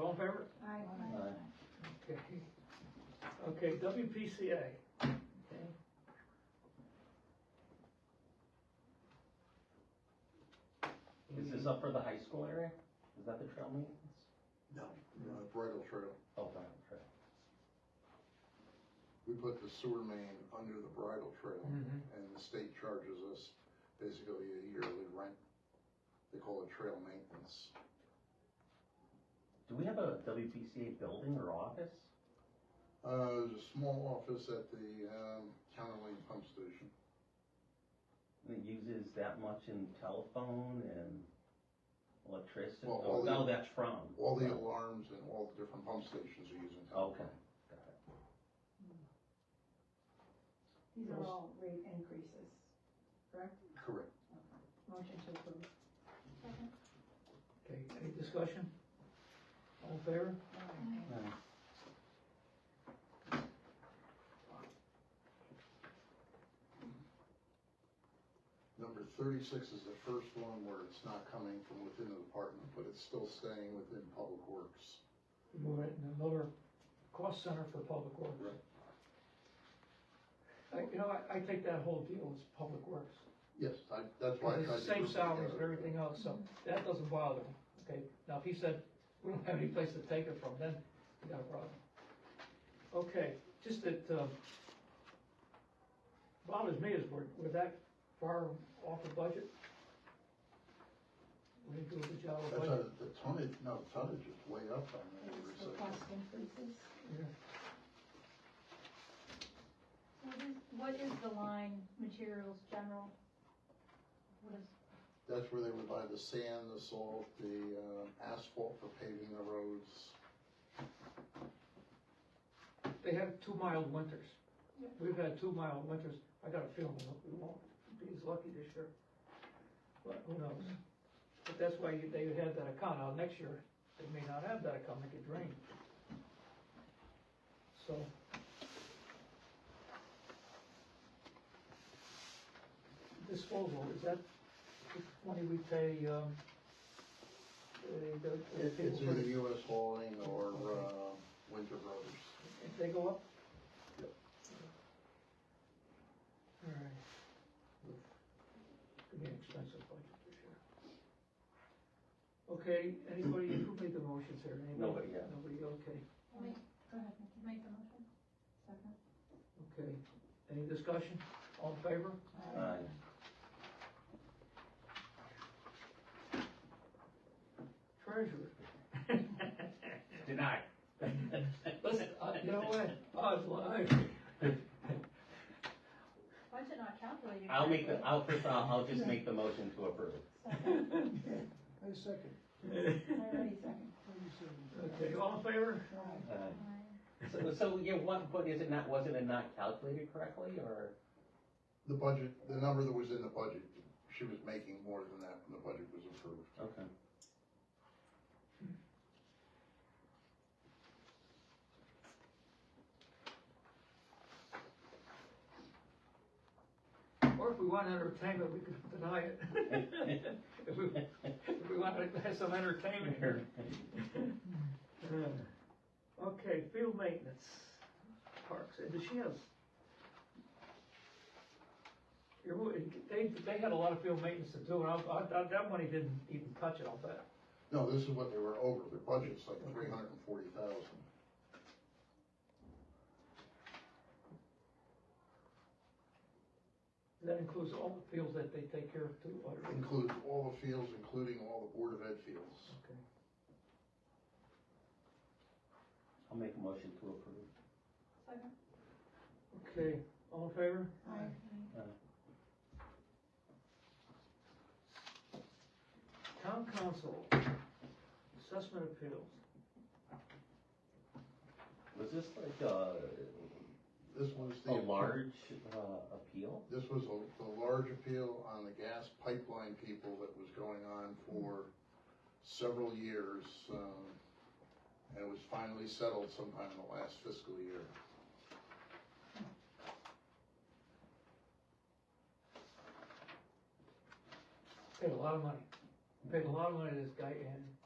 all in favor? Aye. Okay. Okay, WPCA. Is this up for the high school area? Is that the trail maintenance? No. Uh, bridle trail. Oh, Bridle Trail. We put the sewer main under the bridle trail Mhm. and the state charges us basically a yearly rent. They call it trail maintenance. Do we have a WPCA building or office? Uh, there's a small office at the, um, County Lane Pump Station. that uses that much in telephone and electricity? Well, Oh, all the- no, that's from. Oh, All the alarms and all the different pump stations are using Okay. telephone. These are all rate increases, correct? Correct. Motion to approve. Okay, any discussion? All in favor? Yeah. Number thirty-six is the first one where it's not coming from within the department, but it's still staying within Public Works. Move it in another cost center for public works. I, you know, I, I take that whole deal as public works. Yes, I, that's why. I It's the tried to same group it salaries and together. everything else, so that doesn't bother me, okay? Now, if he said, we don't have any place to take it from, then you got a problem. Okay, just that, um, bothers me is we're, we're that far off the budget. We didn't do a good job of That's budget. a, the tonnage, no, tonnage is way up on the This older is for cost section. increases. What is, what is the line materials general? What is, That's where they would buy the sand, the salt, the uh, asphalt for paving the roads. They have two mild winters. We've had two mild winters. I got a feeling we won't be as lucky this year. But who knows? But that's why you- they had that account. Now, next year, they may not have that account, it could rain. So. Disposal, is that the money we pay, um, the, the- the It- people It's for either the- US hauling or uh, Winter Brothers. if they go up? Yep. Alright. Could be an expensive budget this year. Okay, anybody, who made the motions here? Anybody? Nobody yet. Nobody, okay, wait, Go ahead, Nikki. make the motion? Second. okay. Any discussion? All in favor? Aye. Treasurer. Denied. Listen, uh, you know what? I was lying. Budget not calculated. I'll make the, correctly. I'll, first, I'll, I'll just make the motion to approve. Second. I second. Everybody second. Okay, all in favor? Aye. Aye. Aye. So, so, yeah, what, but is it not, wasn't it not calculated correctly, or? The budget, the number that was in the budget, she was making more than that when the budget was approved. Okay. Or if we want entertainment, we could deny it. If we, if we want to have some entertainment here. Uh, Okay, field maintenance, parks, and does she have? You're right, They, they had a lot of field maintenance to do, and I, I, that money didn't even touch it, I'll bet. No, this is what they were over, their budget's like three hundred and forty thousand. That includes all the fields that they take care of too, but, Includes all the fields, including all the Board of Ed fields. okay. I'll make a motion to approve. Second. Okay, all in favor? Aye. Town council, assessment appeals. Was this like, uh, This was the. a large, uh, appeal? This was a, the large appeal on the gas pipeline people that was going on for several years, um, and it was finally settled sometime in the last fiscal year. Paid a lot of money. Paid a lot of money to this guy, and